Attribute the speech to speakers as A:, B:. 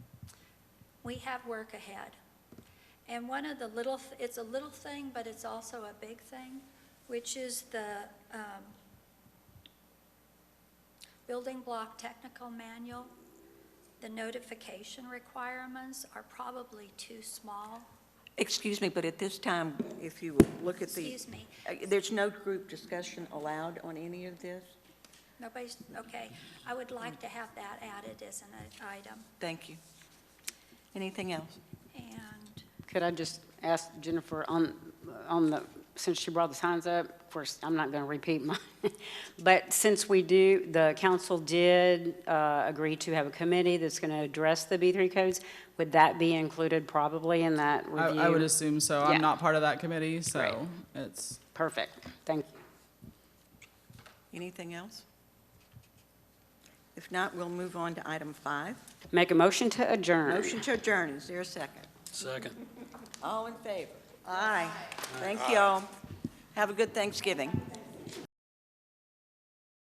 A: we have work ahead. And one of the little, th- it's a little thing, but it's also a big thing, which is the um, building block technical manual. The notification requirements are probably too small.
B: Excuse me, but at this time, if you will look at the,
A: Excuse me,
B: uh, there's no group discussion allowed on any of this?
A: nobody's, okay. I would like to have that added as an item.
B: Thank you. Anything else?
A: And
C: Could I just ask Jennifer on, on the, since she brought the signs up, of course, I'm not going to repeat mine, but since we do, the council did uh, agree to have a committee that's going to address the B3 codes, would that be included probably in that
D: I,
C: review?
D: I would assume so.
C: Yeah.
D: I'm not part of that committee,
C: Right.
D: so it's,
C: Perfect, thank you.
B: Anything else? If not, we'll move on to item five.
C: Make a motion to adjourn.
B: Motion to adjourn, is there a second?
E: Second.
B: All in favor? Aye. Thank you all. Have a good Thanksgiving.